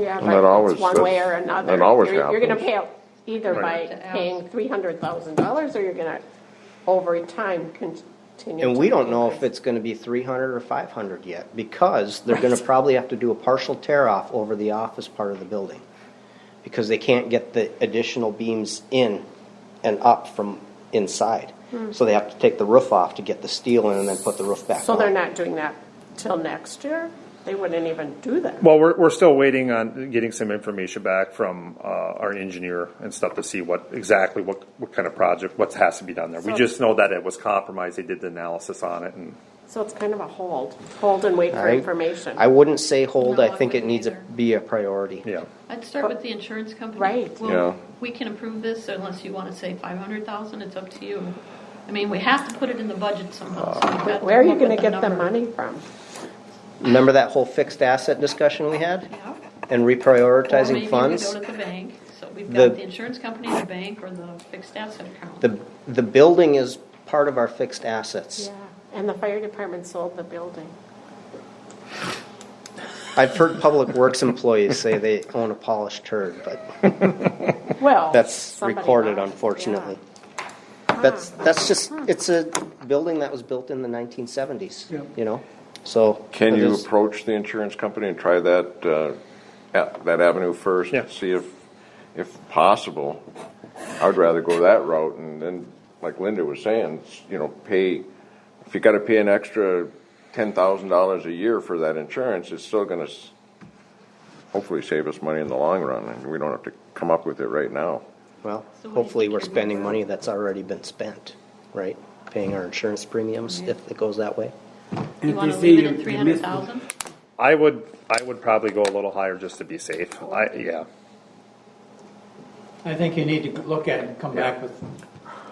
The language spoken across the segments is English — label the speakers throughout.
Speaker 1: Yeah,
Speaker 2: that
Speaker 1: but
Speaker 2: always-
Speaker 1: it's one way
Speaker 2: that's-
Speaker 1: or another.
Speaker 2: that always
Speaker 1: You're- You're gonna
Speaker 2: happens.
Speaker 1: pay either by
Speaker 2: Right.
Speaker 1: paying three hundred thousand dollars, or you're gonna, over time, continue.
Speaker 3: And
Speaker 1: to
Speaker 3: we don't know if
Speaker 1: increase.
Speaker 3: it's gonna be three hundred or five hundred yet, because they're gonna probably have to do a partial tear-off over the office part of the building. Because they can't get the additional beams in and up from inside.
Speaker 4: Hmm.
Speaker 3: So they have to take the roof off to get the steel in and then put the roof back on.
Speaker 1: So they're not doing that till next year? They wouldn't even do that?
Speaker 5: Well, we're, we're still waiting on getting some information back from, uh, our engineer and stuff to see what, exactly what, what kind of project, what has to be done there. We
Speaker 1: So-
Speaker 5: just know that it was compromised, they did the analysis on it and.
Speaker 1: So it's kind of a hold, hold and wait for
Speaker 3: I-
Speaker 1: information.
Speaker 3: I wouldn't say hold,
Speaker 4: No,
Speaker 3: I
Speaker 4: I
Speaker 3: think it
Speaker 4: wouldn't
Speaker 3: needs to
Speaker 4: either.
Speaker 3: be a priority.
Speaker 5: Yeah.
Speaker 4: I'd start with the insurance company.
Speaker 1: Right.
Speaker 4: Well,
Speaker 2: Yeah.
Speaker 4: We can approve this unless you want to say five hundred thousand, it's up to you. I mean, we have to put it in the budget somehow. so we've got to
Speaker 1: Where are you
Speaker 4: come up
Speaker 1: gonna
Speaker 4: with a
Speaker 1: get the
Speaker 4: number.
Speaker 1: money from?
Speaker 3: Remember that whole fixed asset discussion we had?
Speaker 4: Yeah.
Speaker 3: And
Speaker 4: Or
Speaker 3: reprioritizing
Speaker 4: Maybe
Speaker 3: funds?
Speaker 4: we go to the bank, so we've
Speaker 3: The-
Speaker 4: got the insurance company, the bank, or the fixed asset account.
Speaker 3: The, the building is part of our fixed assets.
Speaker 1: Yeah, and the fire department sold the building.
Speaker 3: I've heard public works employees say they own a polished turd, but
Speaker 1: Well.
Speaker 3: that's
Speaker 1: somebody
Speaker 3: recorded
Speaker 1: bought it,
Speaker 3: unfortunately.
Speaker 1: yeah.
Speaker 3: That's, that's just, it's a building that was built in the nineteen seventies, you know, so.
Speaker 2: Can
Speaker 3: it
Speaker 2: you
Speaker 3: is-
Speaker 2: approach the insurance company and try that, uh, a- that avenue first?
Speaker 5: Yeah.
Speaker 2: See if, if possible, I'd rather go that route and then, like Linda was saying, s- you know, pay, if you gotta pay an extra ten thousand dollars a year for that insurance, it's still gonna s- hopefully save us money in the long run, and we don't have to come up with it right now.
Speaker 4: So
Speaker 3: Well,
Speaker 4: what do you
Speaker 3: hopefully
Speaker 4: think
Speaker 3: we're
Speaker 4: your
Speaker 3: spending
Speaker 4: number-
Speaker 3: money that's already been spent, right? Paying our insurance premiums if it goes that way.
Speaker 4: You
Speaker 6: If
Speaker 4: want
Speaker 6: they
Speaker 4: to
Speaker 6: say
Speaker 4: leave
Speaker 6: you
Speaker 4: it at
Speaker 6: you
Speaker 4: three
Speaker 6: missed
Speaker 4: hundred
Speaker 6: the
Speaker 4: thousand?
Speaker 5: I would, I would probably go a little higher just to be safe. I, yeah.
Speaker 6: I think you need to look at it and come back with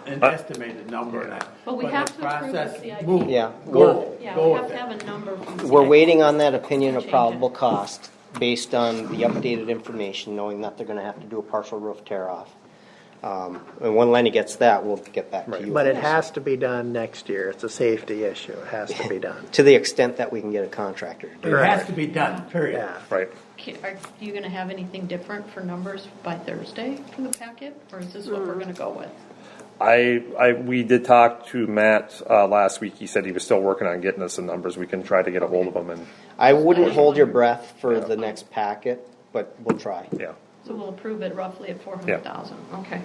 Speaker 6: an
Speaker 5: Uh,
Speaker 6: estimated number. and I-
Speaker 4: But we
Speaker 6: the
Speaker 4: have to approve
Speaker 6: process,
Speaker 4: the CIP.
Speaker 6: move,
Speaker 3: Yeah,
Speaker 6: Go,
Speaker 4: Yeah, we
Speaker 6: go
Speaker 4: have
Speaker 6: with
Speaker 4: to
Speaker 6: it.
Speaker 4: have a number. from
Speaker 3: We're
Speaker 4: CIP.
Speaker 3: waiting on that opinion of
Speaker 4: Change it.
Speaker 3: probable cost based on the updated information, knowing that they're gonna have to do a partial roof tear off. Um, and when Lenny gets that, we'll get back to you.
Speaker 7: But it has to be done next year. It's a safety issue. It has to be done.
Speaker 3: To the extent that we can get a contractor to do
Speaker 6: It has to be done, period.
Speaker 7: Yeah.
Speaker 5: Right.
Speaker 4: Ca- Are you going to have anything different for numbers by Thursday for the packet, or is this
Speaker 1: Hmm.
Speaker 4: what we're going to go with?
Speaker 5: I, I, we did talk to Matt, uh, last week. He said he was still working on getting us some numbers. We can try to get a hold of him and,
Speaker 3: I wouldn't hold your breath for the next packet, but we'll try.
Speaker 5: yeah.
Speaker 4: So we'll approve it roughly at four hundred thousand, okay.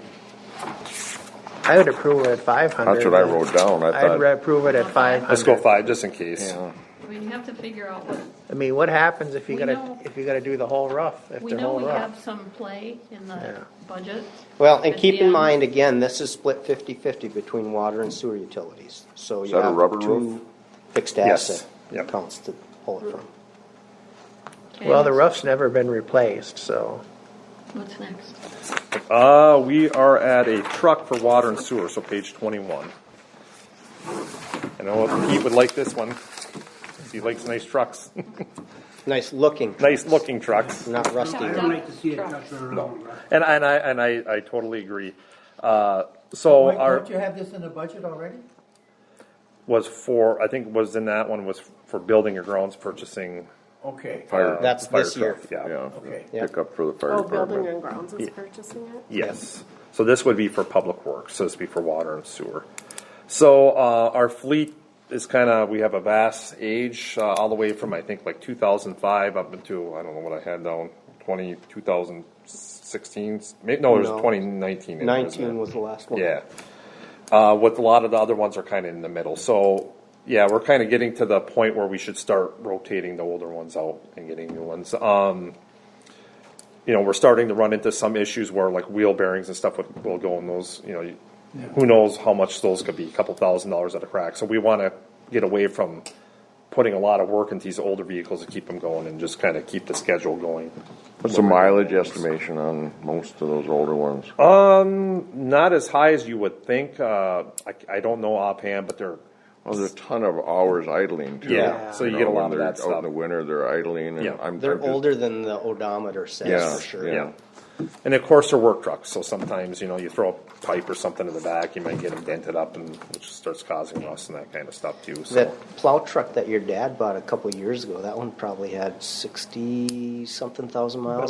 Speaker 7: I would approve it at five hundred.
Speaker 2: That's what I wrote down, I
Speaker 7: I'd
Speaker 2: thought-
Speaker 7: approve it at five
Speaker 5: Let's go
Speaker 7: hundred.
Speaker 5: five, just in case.
Speaker 4: I mean, you have to figure out what,
Speaker 7: I mean, what happens if you
Speaker 4: We
Speaker 7: gotta,
Speaker 4: know-
Speaker 7: if you gotta do the whole roof, if
Speaker 4: we
Speaker 7: the
Speaker 4: know
Speaker 7: whole
Speaker 4: we
Speaker 7: roof?
Speaker 4: have some play in
Speaker 7: Yeah.
Speaker 4: the budget.
Speaker 3: Well, and
Speaker 4: at
Speaker 3: keep
Speaker 4: the um,
Speaker 3: in
Speaker 4: end.
Speaker 3: mind, again, this is split fifty-fifty between water and sewer utilities, so
Speaker 2: Is
Speaker 3: you
Speaker 2: that a
Speaker 3: have
Speaker 2: rubber roof?
Speaker 3: two fixed
Speaker 5: Yes.
Speaker 3: asset
Speaker 5: Yep.
Speaker 3: accounts to pull it from.
Speaker 4: Okay,
Speaker 7: Well, the
Speaker 4: what's-
Speaker 7: roof's never been replaced, so
Speaker 4: What's next?
Speaker 5: Uh, we are at a truck for water and sewer, so page twenty-one. I know Pete would like this one. He likes nice trucks,
Speaker 3: Nice looking,
Speaker 5: nice looking trucks.
Speaker 3: not rusty.
Speaker 6: I don't like to see it touch around. right?
Speaker 5: And, and I, and I, I totally agree. Uh, so
Speaker 6: Wait,
Speaker 5: our,
Speaker 6: Don't you have this in the budget already?
Speaker 5: was for, I think was in that one was for building your grounds, purchasing.
Speaker 6: Okay,
Speaker 2: Fire,
Speaker 3: That's
Speaker 5: fire
Speaker 3: this year.
Speaker 5: truck, Yeah,
Speaker 2: yeah,
Speaker 6: okay.
Speaker 3: Yeah.
Speaker 2: pick up for the fire
Speaker 1: Oh, Building
Speaker 2: department.
Speaker 1: and Grounds is purchasing it?
Speaker 5: yes. So this would be for public works, so this would be for water and sewer. So, uh, our fleet is kinda, we have a vast age, uh, all the way from, I think, like two thousand five up into, I don't know what I had down, twenty, two thousand sixteen, maybe, no,
Speaker 3: No.
Speaker 5: it was uh, twenty nineteen.
Speaker 3: Nineteen was the last one.
Speaker 5: Yeah. Uh, with a lot of the other ones are kind of in the middle. So, yeah, we're kind of getting to the point where we should start rotating the older ones out and getting new ones. Um, you know, we're starting to run into some issues where like wheel bearings and stuff would, will go in those, you know, you- who knows how much those could be, a couple thousand dollars at a crack. So we want to get away from putting a lot of work into these older vehicles to keep them going and just kind of keep the schedule going.
Speaker 2: What's the mileage estimation on most of those older ones?
Speaker 5: Not as high as you would think. Uh, I, I don't know offhand, but they're
Speaker 2: Well, there's a ton of hours idling too.
Speaker 5: Yeah, so you
Speaker 2: know,
Speaker 5: get a
Speaker 2: when
Speaker 5: lot of
Speaker 2: they're
Speaker 5: that
Speaker 2: Out in
Speaker 5: stuff.
Speaker 2: the winter, they're idling and
Speaker 5: Yeah.
Speaker 2: I'm. I'm
Speaker 3: They're
Speaker 2: just-
Speaker 3: older than the
Speaker 2: Yeah,
Speaker 3: odometer says, for sure.
Speaker 2: yeah.
Speaker 5: And of course, they're work trucks, so sometimes, you know, you throw a pipe or something in the back, you might get them dented up and which starts causing rust and that kind of stuff too, so.
Speaker 3: That plow truck that your dad bought a couple years ago, that one probably had sixty-something thousand miles